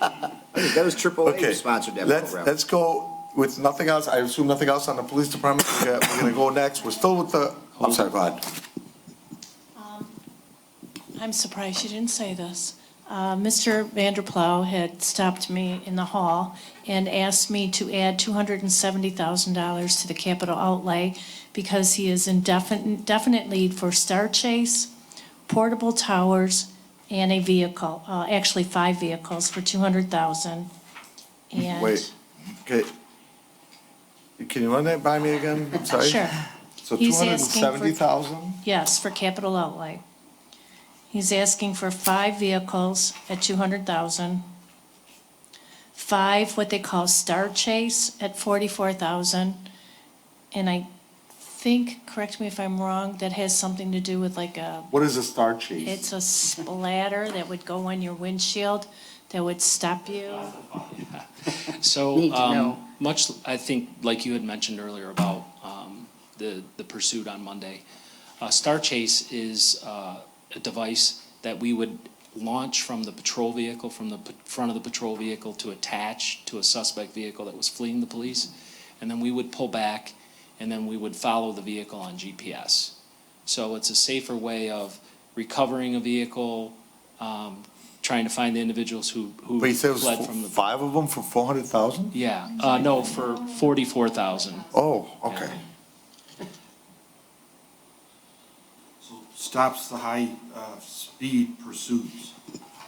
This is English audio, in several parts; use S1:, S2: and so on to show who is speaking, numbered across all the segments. S1: That was triple A
S2: Okay,
S1: sponsored that
S2: let's,
S1: program.
S2: let's go with nothing else. I assume nothing else on the police department. We're gonna- we're gonna go next. We're still with the, I'm sorry, go ahead.
S3: I'm surprised you didn't say this. Uh, Mr. Vanderplow had stopped me in the hall and asked me to add $270,000 to the capital outlay because he is in definite, definite need for Star Chase, portable towers, and a vehicle, uh, actually five vehicles for 200,000. And.
S2: Wait, okay. Can you run that by me again? I'm sorry.
S3: Sure.
S2: So two
S3: He's
S2: hundred and
S3: asking for-
S2: seventy thousand?
S3: Yes, for capital outlay. He's asking for five vehicles at two hundred thousand. Five, what they call Star Chase at forty-four thousand. And I think, correct me if I'm wrong, that has something to do with like a,
S2: What is a star chase?
S3: it's a splatter that would go on your windshield that would stop you.
S4: So,
S5: Need to know.
S4: um, much, I think, like you had mentioned earlier about, um, the, the pursuit on Monday, uh, Star Chase is, uh, a device that we would launch from the patrol vehicle, from the p- front of the patrol vehicle to attach to a suspect vehicle that was fleeing the police. And then we would pull back and then we would follow the vehicle on GPS. So it's a safer way of recovering a vehicle, um, trying to find the individuals who, who
S2: Wait, so it was
S4: fled from the.
S2: f- five of them for four hundred thousand?
S4: Yeah, uh, no, for forty-four thousand.
S2: Oh, okay.
S6: So stops the high, uh, speed pursuits,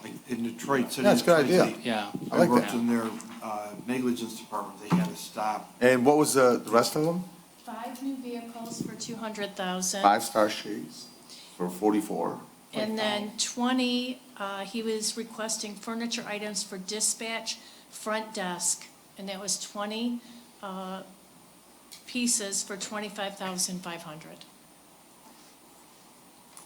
S6: like in Detroit City.
S2: That's a good
S6: Detroit
S2: idea.
S6: City,
S4: Yeah,
S2: I like
S6: I worked
S2: that.
S6: in their, uh, negligence department, they had to stop.
S2: And what was the, the rest of them?
S3: Five new vehicles for two hundred thousand.
S2: Five star chase for forty-four.
S3: And then 20, uh, he was requesting furniture items for dispatch, front desk, and that was 20 uh, pieces for 25,500.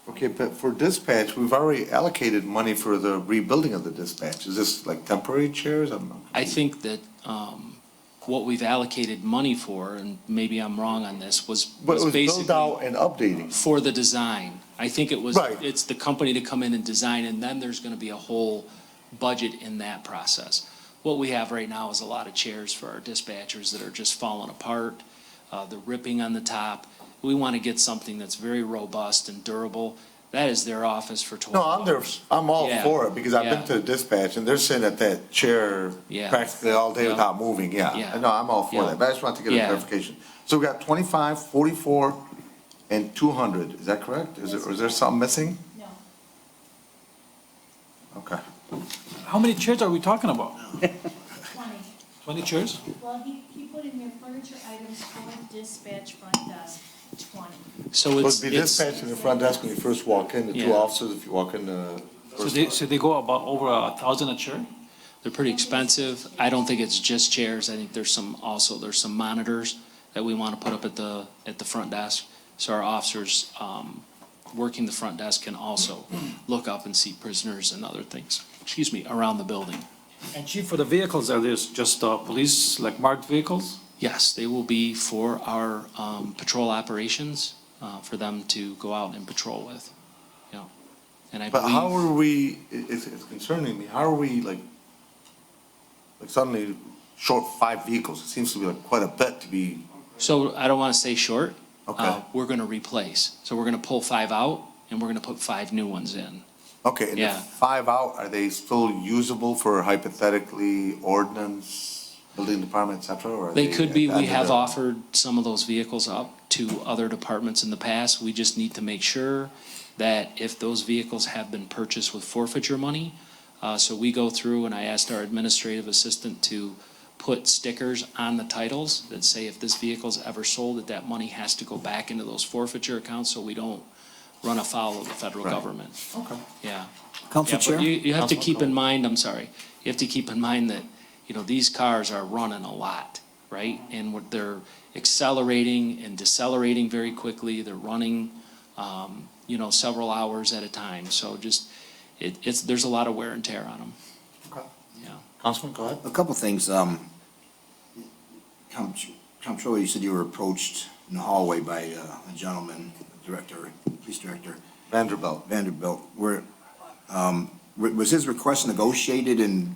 S2: Okay, but for dispatch, we've already allocated money for the rebuilding of the dispatch. Is this like temporary chairs? I'm not-
S4: I think that, um, what we've allocated money for, and maybe I'm wrong on this, was,
S2: But it
S4: was
S2: was built
S4: basically
S2: out and updating.
S4: for the design. I think it was,
S2: Right.
S4: it's the company to come in and design, and then there's gonna be a whole budget in that process. What we have right now is a lot of chairs for our dispatchers that are just falling apart, uh, they're ripping on the top. We wanna get something that's very robust and durable. That is their office for twelve
S2: No, I'm there, I'm all
S4: Yeah,
S2: for it because I've been
S4: yeah.
S2: to the dispatch and they're sitting at that chair
S4: Yeah.
S2: practically all day
S4: Yeah.
S2: without moving, yeah.
S4: Yeah.
S2: No, I'm all for
S4: Yeah.
S2: that, but I just want to get a
S4: Yeah.
S2: clarification. So we got 25, 44, and two hundred, is that correct? Is there, is there something missing?
S3: No.
S2: Okay.
S7: How many chairs are we talking about?
S3: 20.
S7: 20 chairs?
S3: Well, he, he put in there furniture items for dispatch, front desk, 20.
S4: So
S2: Would
S4: it's,
S2: be
S4: it's,
S2: dispatch in the front desk when you first walk in, the two
S4: Yeah.
S2: officers, if you walk in the
S7: So
S2: first.
S7: they, so they go about over a thousand a chair?
S4: they're pretty expensive. I don't think it's just chairs. I think there's some, also, there's some monitors that we want to put up at the, at the front desk. So our officers, um, working the front desk can also look up and see prisoners and other things, excuse me, around the building.
S7: And chief, for the vehicles, are these just uh, police, like marked vehicles?
S4: Yes, they will be for our, um, patrol operations, uh, for them to go out and patrol with, you know. And I
S2: But how
S4: believe,
S2: are we, it- it's, it's concerning me, how are we like, like suddenly short five vehicles? It seems to be like quite a bit to be,
S4: so I don't want to say short.
S2: Okay.
S4: Uh, We're going to replace. So we're going to pull five out and we're going to put five new ones in.
S2: okay, and the
S4: Yeah.
S2: five out, are they still usable for hypothetically ordinance, building department, et cetera, or? are
S4: They could be, we
S2: under
S4: have
S2: the-
S4: offered some of those vehicles up to other departments in the past. We just need to make sure that if those vehicles have been purchased with forfeiture money, uh, so we go through and I asked our administrative assistant to put stickers on the titles that say if this vehicle's ever sold, that that money has to go back into those forfeiture accounts so we don't run afoul of the federal
S2: Right.
S4: government.
S2: Okay.
S4: Yeah.
S5: Council
S4: Yeah, but
S5: Chair?
S4: You, you have to
S2: Councilman
S4: keep
S2: Cole.
S4: in mind, I'm sorry, you have to keep in mind that, you know, these cars are running a lot, right? And what- they're accelerating and decelerating very quickly, they're running, um, you know, several hours at a time. So just, it, it's, there's a lot of wear and tear on them, yeah.
S2: Councilman, go ahead.
S5: A couple things, um, Comptr- Comptroller, you said you were approached in the hallway by uh, a gentleman, director, police director,
S2: Vanderbilt.
S5: Vanderbilt. Were, um, wa- was his request negotiated and